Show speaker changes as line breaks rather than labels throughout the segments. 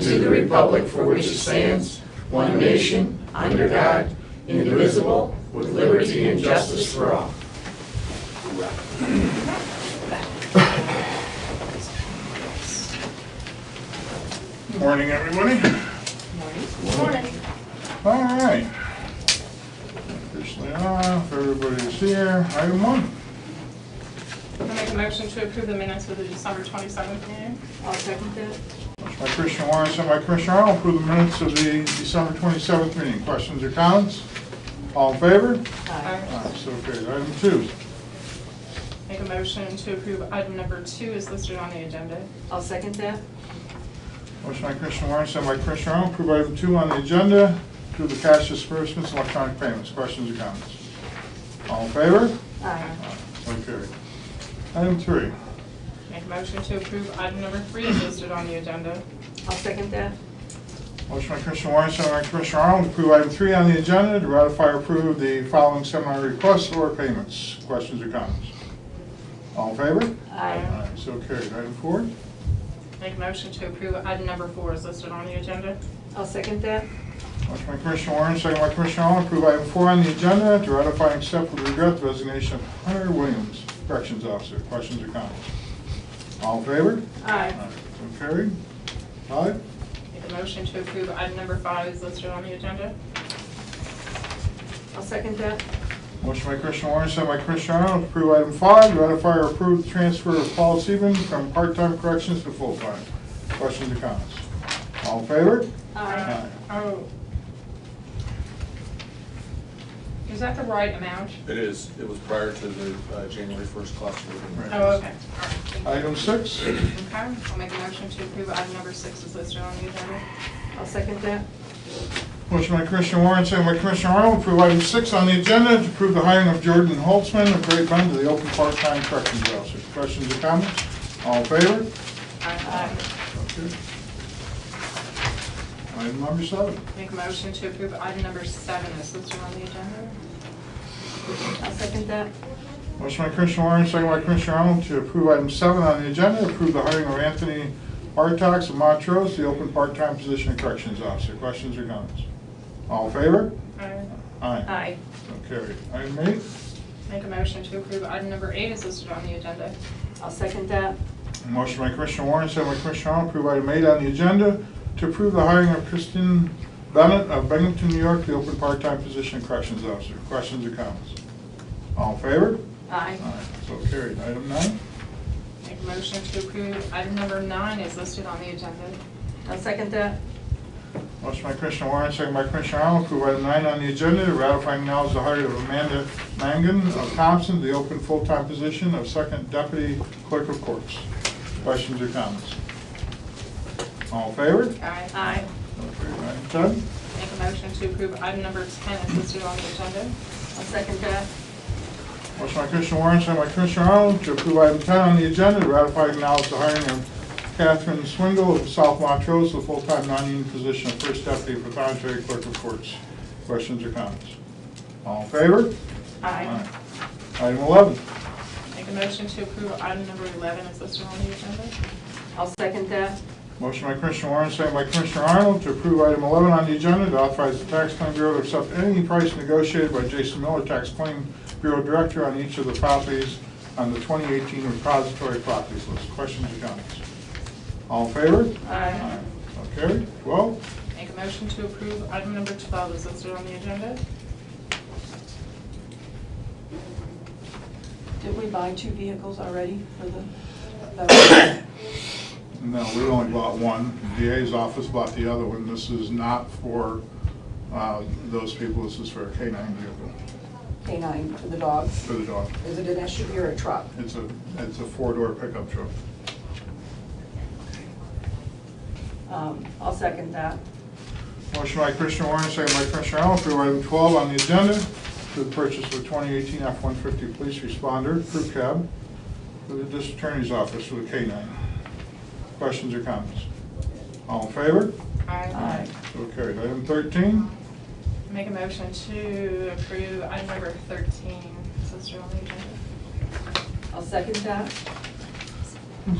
to the republic for which it stands, one nation, under God, indivisible, with liberty and justice for all.
Morning, everybody. All right. uh, Officially off, everybody's here. Item one.
I make a motion to approve the minutes for the December 27th meeting.
I'll second that.
Motion by Commissioner Warren, sent by Commissioner Arnold, approve the minutes of the December 27th meeting. Questions or comments? All in favor?
Aye.
Aye, So carried. Item two.
Make a motion to approve item number two is listed on the agenda.
I'll second that.
Motion by Commissioner Warren, sent by Commissioner Arnold, approve item two on the agenda, approve the cash disbursements, and electronic payments. Questions or comments? All in favor?
Aye.
Aye, So carried. Item three.
Make a motion to approve item number three is listed on the agenda.
I'll second that.
Motion by Commissioner Warren, second by Commissioner Arnold, to approve item three on the agenda, to ratify or approve the following seminar requests or payments. Questions or comments? All in favor?
Aye.
Aye, So carried. Item four.
Make a motion to approve item number four is listed on the agenda.
I'll second that.
Motion by Commissioner Warren, second by Commissioner Arnold, to approve item four on the agenda, to ratify and accept with regret the resignation of Hunter Williams, Corrections Officer. Questions or comments? All in favor?
Aye.
So carried. Five.
Make a motion to approve item number five is listed on the agenda.
I'll second that.
Motion by Commissioner Warren, sent by Commissioner Arnold, to approve item five, ratify or approve the transfer of Paul Seaman from part-time corrections to full-time. Questions or comments? All in favor?
Aye.
Oh. Is that the right amount?
It is, it was prior to the uh, January 1st class meeting.
Right.
Oh, okay. All right. Thank you.
Item six,
Okay, I'll make a motion to approve item number six is listed on the agenda.
I'll second that.
motion by Commissioner Warren, sent by Commissioner Arnold, to approve item six on the agenda, to approve the hiring of Jordan Holtzman of Great Bend to the open part-time corrections officer. Questions or comments? All in favor? Okay. Item number seven.
Make a motion to approve item number seven is listed on the agenda.
I'll second that.
Motion by Commissioner Warren, second by Commissioner Arnold, to approve item seven on the agenda, approve the hiring of Anthony Bartox of Montrose, the open part-time position of corrections officer. Questions or comments? All in favor?
Aye.
Aye.
Aye.
So carried. Item eight,
Make a motion to approve item number eight is listed on the agenda.
I'll second that.
motion by Commissioner Warren, second by Commissioner Arnold, approve item eight on the agenda, to approve the hiring of Kristen Bennett of Bennington, New York, the open part-time position of corrections officer. Questions or comments? All in favor?
Aye.
Aye. So carried. Item nine,
Make a motion to approve item number nine is listed on the agenda.
I'll second that.
Motion by Commissioner Warren, second by Commissioner Arnold, approve item nine on the agenda, to ratify acknowledge the hire of Amanda Mangan of Thompson, the open full-time position of second deputy clerk of courts. Questions or comments? All in favor?
Aye.
Aye.
Okay, Item ten.
Make a motion to approve item number 10 is listed on the agenda.
I'll second that.
Motion by Commissioner Warren, second by Commissioner Arnold, to approve item ten on the agenda, to ratify acknowledge the hiring of Catherine Swingle of South Montrose, the full-time non-union position of first deputy pathonetary clerk of courts. Questions or comments? All in favor?
Aye.
Item 11.
Make a motion to approve item number 11 is listed on the agenda.
I'll second that.
Motion by Commissioner Warren, second by Commissioner Arnold, to approve item 11 on the agenda, to authorize the Tax Claim Bureau to accept any price negotiated by Jason Miller, Tax Claim Bureau Director, on each of the properties on the 2018 repository properties list. Questions or comments? All in favor?
Aye.
So carried. 12.
Make a motion to approve item number 12 is listed on the agenda.
Did we buy two vehicles already for the, the-
No, we only bought one. DA's office bought the other one. This is not for uh, those people. This is for a K-9 vehicle,
canine for the dogs?
for the dog.
Is it an SUV or a truck?
It's a, it's a four-door pickup truck.
Um, I'll second that.
Motion by Commissioner Warren, second by Commissioner Arnold, approve item 12 on the agenda, to the purchase of 2018 F-150 Police Responder Crew Cab for the District Attorney's Office with a K-9. Questions or comments? All in favor?
Aye.
So carried. Item 13,
Make a motion to approve item number 13 is listed on the agenda.
I'll second that.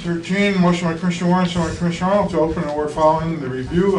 Thirteen, motion by Commissioner Warren, second by Commissioner Arnold to open and award following the review